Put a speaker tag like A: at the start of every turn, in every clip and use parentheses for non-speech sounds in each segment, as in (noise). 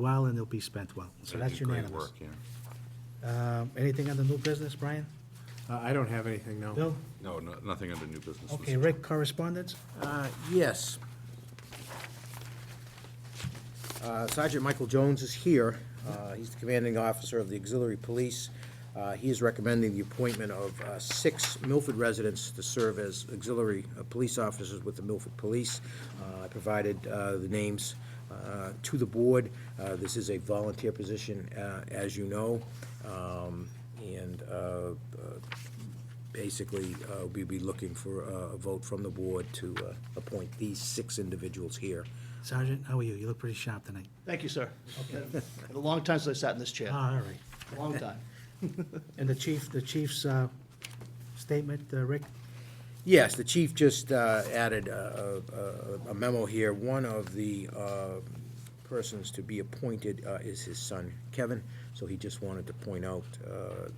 A: well, and they'll be spent well. So
B: They
A: that's
B: did great
A: unanimous.
B: work, yeah.
A: Um, Anything on the new business, Brian?
C: Uh, I don't have anything, no.
A: Bill?
B: No, no- nothing under new business.
A: Okay,
B: Mr.
A: Rick, correspondence?
D: Uh, Yes. Uh, Sergeant Michael Jones is here. Uh, He's the commanding officer of the auxiliary police. Uh, He is recommending the appointment of uh, six Milford residents to serve as auxiliary uh, police officers with the Milford Police. Uh, I provided uh, the names uh, to the board. Uh, This is a volunteer position, uh, as you know, Um, and uh, basically, uh, we'd be looking for uh, a vote from the board to uh, appoint these six individuals here.
A: Sergeant, how are you? You look pretty sharp tonight.
E: Thank you, sir. (laughs) Been A long time since I sat in this chair,
A: Ah, All right.
E: long time.
A: And the chief, the chief's uh, statement, uh, Rick?
D: Yes, the chief just uh, added a a- a memo here. One of the uh, persons to be appointed uh, is his son, Kevin, so he just wanted to point out uh,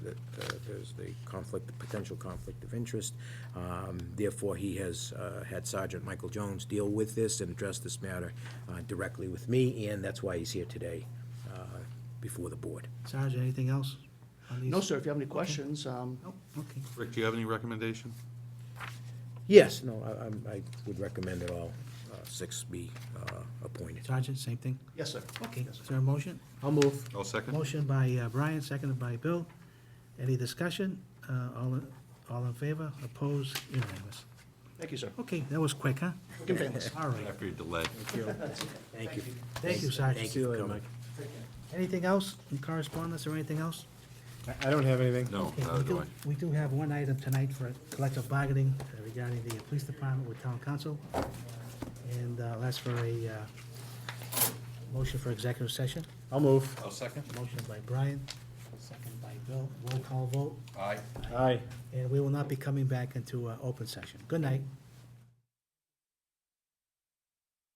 D: that uh, there's the conflict, the potential conflict of interest. Um, Therefore, he has uh, had Sergeant Michael Jones deal with this and address this matter uh, directly with me, and that's why he's here today uh, before the board.
A: Sergeant, anything else? on these?
E: No, sir, if you have any questions, um,
A: Nope, okay.
B: Rick, do you have any recommendation?
D: Yes, no, I- I'm- I would recommend that all uh, six be uh, appointed.
A: Sergeant, same thing?
E: yes, sir.
A: Okay,
E: Yes, sir.
A: is there a motion?
D: I'll move.
B: All second?
A: Motion by uh, Brian, seconded by Bill. Any discussion? Uh, All, in- all in favor? Opposed? Unanimous.
E: Thank you, sir.
A: Okay, that was quick, huh?
E: Quick and painless.
A: All right.
B: After your delay.
D: Thank you.
A: Thank you, Sergeant.
D: Thank
A: See
D: you for coming.
A: Anything else in correspondence or anything else?
C: I, I don't have anything.
B: No,
A: Okay,
B: neither
A: we
B: do
A: do,
B: I.
A: we do have one item tonight for collective bargaining uh, regarding the police department with town council. And uh, I'll ask for a uh, motion for executive session.
C: I'll move.
B: All second?
A: Motion by Brian, second by Bill, roll call vote.
B: Aye.
C: Aye.
A: And we will not be coming back into uh, open session. Good night.